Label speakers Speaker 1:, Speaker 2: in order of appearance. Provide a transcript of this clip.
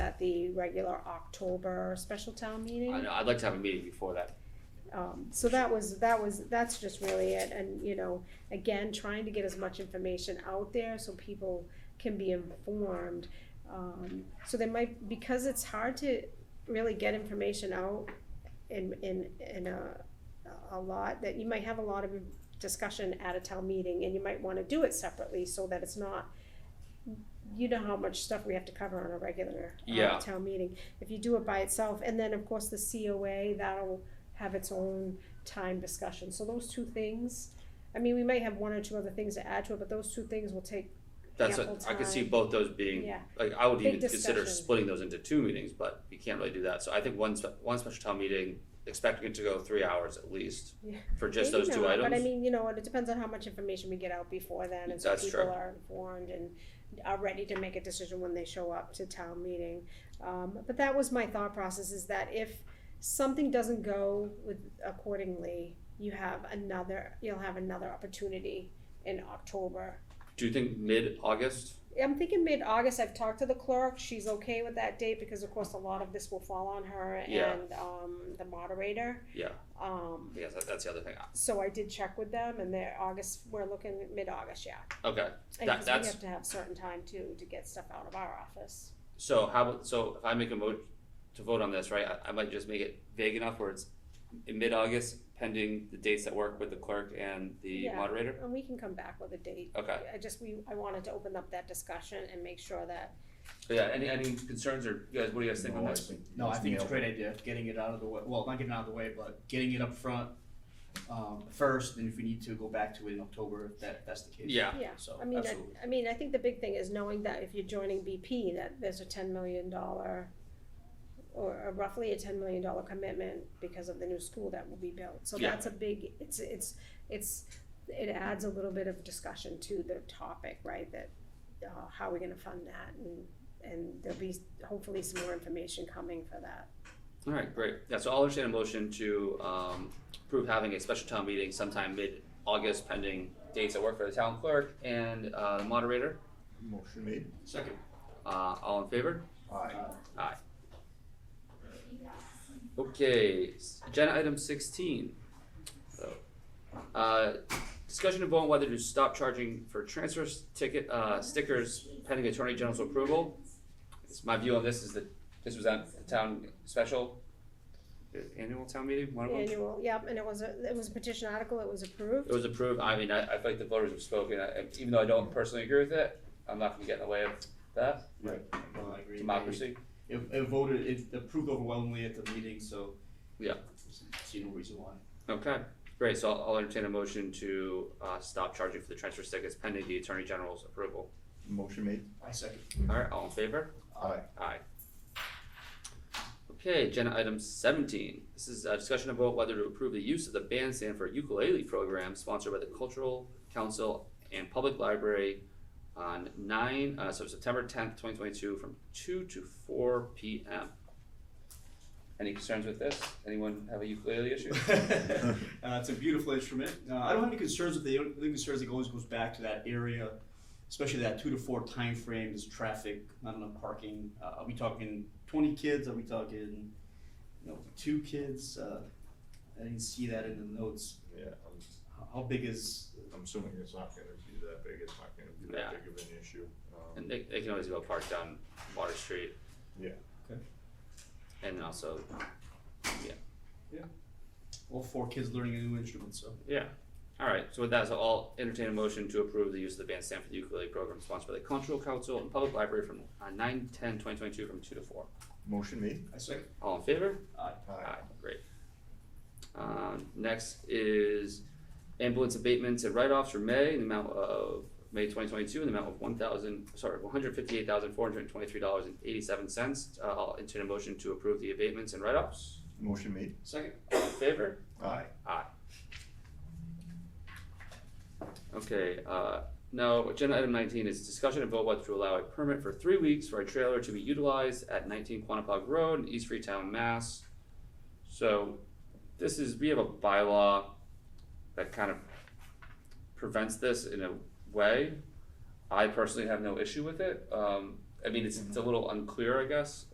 Speaker 1: the regular October special town meeting.
Speaker 2: I know, I'd like to have a meeting before that.
Speaker 1: Um, so that was, that was, that's just really it, and, you know, again, trying to get as much information out there so people can be informed. Um, so they might, because it's hard to really get information out in, in, in a, a lot, that you might have a lot of discussion at a town meeting, and you might wanna do it separately so that it's not, you know how much stuff we have to cover on a regular,
Speaker 2: Yeah.
Speaker 1: uh, town meeting. If you do it by itself, and then, of course, the COA, that'll have its own time discussion. So those two things, I mean, we might have one or two other things to add to it, but those two things will take,
Speaker 2: That's, a-
Speaker 1: Ample
Speaker 2: I could see
Speaker 1: time.
Speaker 2: both those being,
Speaker 1: yeah,
Speaker 2: like, I would
Speaker 1: Big
Speaker 2: even consider
Speaker 1: discussion.
Speaker 2: splitting those into two meetings, but you can't really do that. So I think one, spe- one special town meeting, expecting it to go three hours at least
Speaker 1: Yeah.
Speaker 2: for just
Speaker 1: Maybe
Speaker 2: those two
Speaker 1: not,
Speaker 2: items.
Speaker 1: But I mean, you know, it depends on how much information we get out before then, and so
Speaker 2: That's
Speaker 1: people
Speaker 2: true.
Speaker 1: are informed and are ready to make a decision when they show up to town meeting. Um, but that was my thought process, is that if something doesn't go with accordingly, you have another, you'll have another opportunity in October
Speaker 2: Do you think mid-August?
Speaker 1: I'm thinking mid-August, I've talked to the clerk, she's okay with that date, because of course, a lot of this will fall on her
Speaker 2: Yeah.
Speaker 1: and, um, the moderator.
Speaker 2: Yeah.
Speaker 1: Um,
Speaker 2: Yes, that- that's the other thing.
Speaker 1: so I did check with them, and they're August, we're looking at mid-August, yeah.
Speaker 2: Okay,
Speaker 1: And
Speaker 2: That-
Speaker 1: 'cause we
Speaker 2: that's-
Speaker 1: have to have certain time too, to get stuff out of our office.
Speaker 2: so how, about so if I make a mo, to vote on this, right, I, I might just make it vague enough where it's in mid-August pending the dates that work with the clerk and the
Speaker 1: Yeah.
Speaker 2: moderator?
Speaker 1: And we can come back with a date.
Speaker 2: Okay.
Speaker 1: I just, we, I wanted to open up that discussion and make sure that,
Speaker 2: But yeah, any, any concerns or, you guys, what do you guys think on
Speaker 3: No, I
Speaker 2: this?
Speaker 3: think- No, I think it's a great idea, getting it out of the way, well, not getting it out of the way, but getting it up front, um, first, and if we need to go back to it in October, if that, that's the case.
Speaker 2: Yeah,
Speaker 1: yeah.
Speaker 3: So,
Speaker 1: I mean, I,
Speaker 2: absolutely.
Speaker 1: I mean, I think the big thing is knowing that if you're joining BP, that there's a ten million dollar or a roughly a ten million dollar commitment because of the new school that will be built. So
Speaker 2: Yeah.
Speaker 1: that's a big, it's, it's, it's, it adds a little bit of discussion to the topic, right? That, uh, how are we gonna fund that and, and there'll be hopefully some more information coming for that.
Speaker 2: All right, great. Yeah, so I'll entertain a motion to um, approve having a special town meeting sometime mid-August pending dates that work for the town clerk and uh, the moderator.
Speaker 4: Motion made.
Speaker 2: Second. Uh, all in favor?
Speaker 4: Aye.
Speaker 2: Aye. Okay, s- agenda item sixteen. So, uh, discussion of vote on whether to stop charging for transfer s- ticket, uh, stickers pending attorney general's approval. It's my view on this is that this was at the town special, uh, annual town meeting, one of them.
Speaker 1: Annual, yep, and it was a, it was a petition article, it was approved.
Speaker 2: It was approved, I mean, I, I feel like the voters have spoken, I, I- even though I don't personally agree with it, I'm not gonna get in the way of that,
Speaker 3: No, I agree.
Speaker 2: democracy.
Speaker 3: It, it voted, it approved overwhelmingly at the meeting, so.
Speaker 2: Yeah.
Speaker 3: See no reason why.
Speaker 2: Okay, great, so I'll I'll entertain a motion to uh stop charging for the transfer tickets pending the Attorney General's approval.
Speaker 4: Motion made.
Speaker 3: I second.
Speaker 2: Alright, all in favor?
Speaker 4: Aye.
Speaker 2: Aye. Okay, agenda item seventeen, this is a discussion about whether to approve the use of the bandstand for ukulele program sponsored by the Cultural Council and Public Library on nine, uh so September tenth, twenty twenty-two, from two to four P M. Any concerns with this? Anyone have a ukulele issue?
Speaker 3: uh, it's a beautiful instrument. Uh, I don't have any concerns with the, the only concerns that always goes back to that area, especially that two to four time frame is traffic, not enough parking. Uh, are we talking 20 kids? Are we talking, you know, two kids? Uh, I didn't see that in the notes.
Speaker 4: Yeah, I'm,
Speaker 3: How- How big is?
Speaker 4: I'm assuming it's not gonna be that big, it's not gonna be
Speaker 2: Yeah.
Speaker 4: that big of an issue. Um,
Speaker 2: And they, they can always go park down Water Street.
Speaker 4: Yeah.
Speaker 3: Okay.
Speaker 2: And then also,
Speaker 3: All four kids learning a new instrument, so.
Speaker 2: yeah. All right. So with that, so I'll entertain a motion to approve the use of the bandstand for the ukulele program sponsored by the Cultural Council and Public Library from uh, 9, 10, 2022 from 2 to 4.
Speaker 4: Motion made.
Speaker 3: I second.
Speaker 2: All in favor?
Speaker 4: Aye.
Speaker 2: Great. Um, next is ambulance abatements and write-offs for May in the amount of, May twenty twenty-two, in the amount of one thousand, sorry, one hundred fifty-eight thousand, four hundred and twenty-three dollars and eighty-seven cents. Uh, I'll entertain a motion to approve the abatements and write-offs.
Speaker 4: Motion made.
Speaker 3: Second.
Speaker 2: All in favor?
Speaker 4: Aye.
Speaker 2: Okay, uh, now, agenda item nineteen is discussion and vote whether to allow a permit for three weeks for a trailer to be utilized at nineteen Quantapug Road in East Freetown, Mass. So, this is, we have a bylaw that kind of prevents this in a way. I personally have no issue with it, um, I mean, it's, it's a little unclear, I guess,